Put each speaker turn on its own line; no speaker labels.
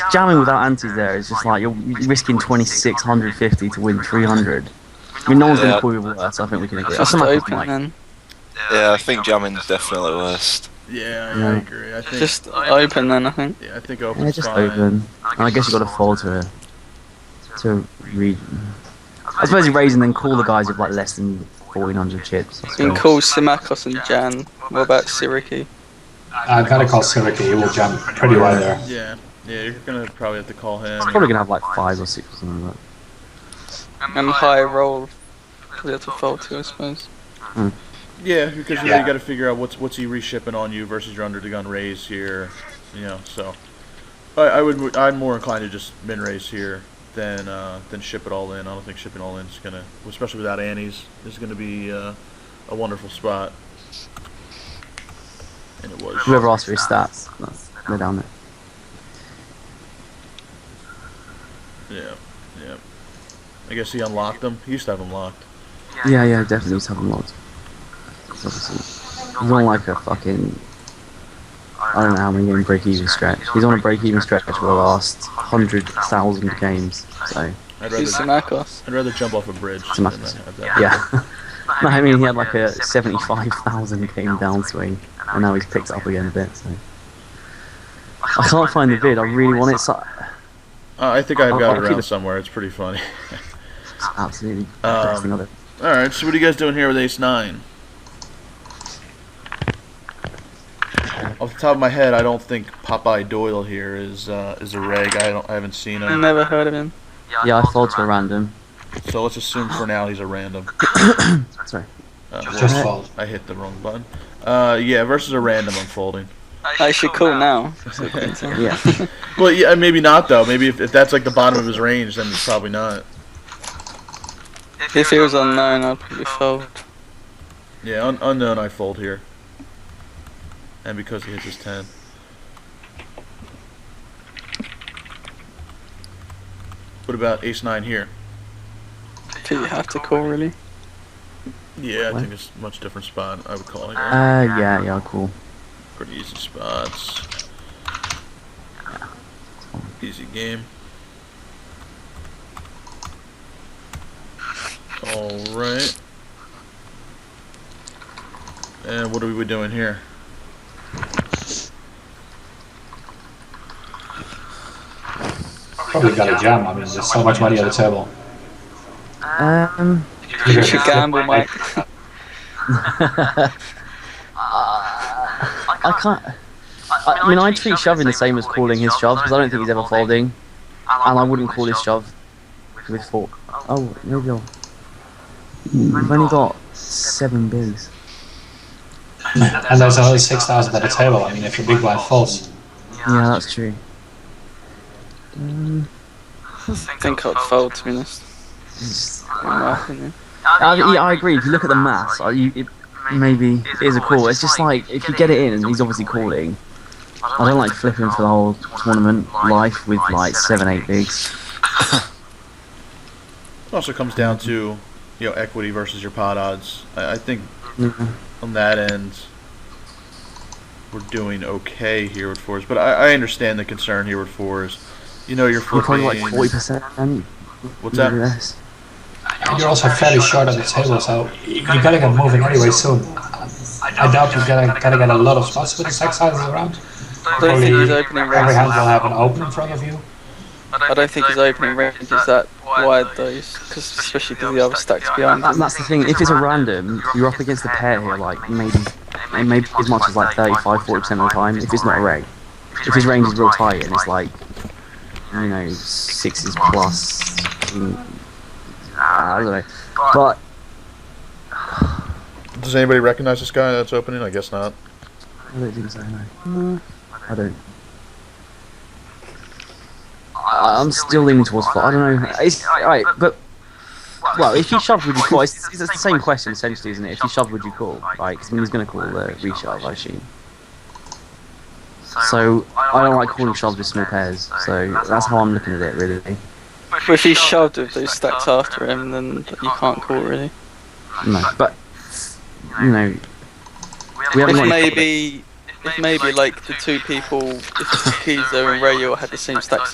jamming without antes there is just like you're risking 2650 to win 300. I mean, no one's going
Yeah.
to call you worse. I think we can agree.
That's
That's my
open,
point.
then.
Yeah, I think jamming's definitely worst.
Yeah, I
Yeah.
agree. I think.
Just open then, I think.
yeah, I think open.
Yeah, just open. And I guess you got to fall to to read. I suppose you're raising then call the guys with like less than 1400 chips.
You can call Simakos and Jan. What about Siriki?
I've had a call Siric, he will jump pretty wide there.
Yeah, yeah, you're gonna probably have to call him.
It's probably gonna have like five or six or something like
And high roll. Probably have to fold to, I suppose.
Yeah, because you, know,
Yeah.
you got to figure out what's what's he reshipping on you versus your under the gun raise here, you know. So, I, I would I'm more inclined to just min raise here than uh, than ship it all in. I don't think shipping all in is gonna, especially without Annie's, is gonna be uh, a wonderful spot. And it was.
that. Whoever asked for his stats, that's, they're down there.
Yeah, yeah. I guess he unlocked them. He used to have them locked.
Yeah, yeah, definitely was having lots. It's obviously he's on like a fucking I don't know how many game break even stretch. He's on a break even stretch for the last hundred thousand games. So
I'd rather
Who's Simakos?
I'd rather jump off a bridge.
It's
Than
enough.
that, at that
yeah. no, I mean he had like a seventy-five thousand game downswing, and now he's picked it up again a bit. So I can't find the vid. I really want it. So
Uh, I think I've got
I'll
it
keep
around
it.
somewhere. It's pretty funny.
absolutely
Um,
best thing I've ever
All right, so what are you guys doing here with Ace Nine? Off the top of my head, I don't think Popeye Doyle here is uh, is a reg. I don't, I haven't seen
I
him,
never heard of him.
Yeah, I fall to a random.
so let's assume for now he's a random.
Sorry.
Uh,
Just
well,
fold.
I hit the wrong button. Uh, yeah, versus a random unfolding.
I should call now.
Yeah.
Well, yeah, maybe not though. Maybe if, if that's like the bottom of his range, then it's probably not.
If he was unknown, I'd probably fold.
Yeah, un- unknown I fold here, and because he hits his ten. What about Ace Nine here?
I think you have to call, really.
Yeah, I
What?
think it's a much different spot. I would call it here.
Uh, yeah, yeah, cool.
Pretty easy spots. Easy game. Alright. And what are we doing here?
Probably got a jam, I mean, there's so much money on the table.
Um,
You should gamble, Mike.
I can't. I, I mean, I treat shoving the same as calling his shove because I don't think he's ever folding, and I wouldn't call his shove with fork. Oh, maybe I'll. Hmm, We've only got seven bigs.
And there's another 6,000 on the table, I mean, if your big blind folds.
Yeah, that's true. Um,
I think I'd fold, to be honest.
it's-
In my opinion.
I, yeah, I agree. If you look at the maths, I, you, it maybe it is a call. It's just like if you get it in, and he's obviously calling. I don't like flipping for the whole tournament life with like seven, eight bigs.
It also comes down to, you know, equity versus your pot odds. I, I think
Yeah.
on that end, we're doing okay here with fours. But I, I understand the concern here with fours. You know, you're
You're probably like
14.
forty percent.
What's that?
And you're also fairly short on the table, so you gotta get moving anyway soon. I doubt you're gonna, gonna get a lot of spots with the six sizes around.
I don't think he's opening
Every hand
range.
will have an open in front of you.
I don't think he's opening range is that wide though, because especially because the other stacks behind.
And that's the thing. If it's a random, you're up against the pair here, like maybe, maybe as much as like 35, 40 percent of the time. If it's not a reg, if his range is real tight and it's like, you know, sixes plus. mm, I don't know. uh, But
Does anybody recognize this guy that's opening? I guess not.
I don't think so. No, I don't. I, I'm still leaning towards four. I don't know. It's alright, but well, if you shove, would you call? It's, it's the same question essentially, isn't it? If you shove, would you call? Like, 'cause I mean, he's going to call the reshove, I assume. So I don't like calling shoves with small pairs. So that's how I'm looking at it, really.
But if he shoved with those stacks after him, then you can't call really.
No, but you know, we haven't
If
got any-
maybe, if maybe like the two people, if the keys are in rail had the same stacks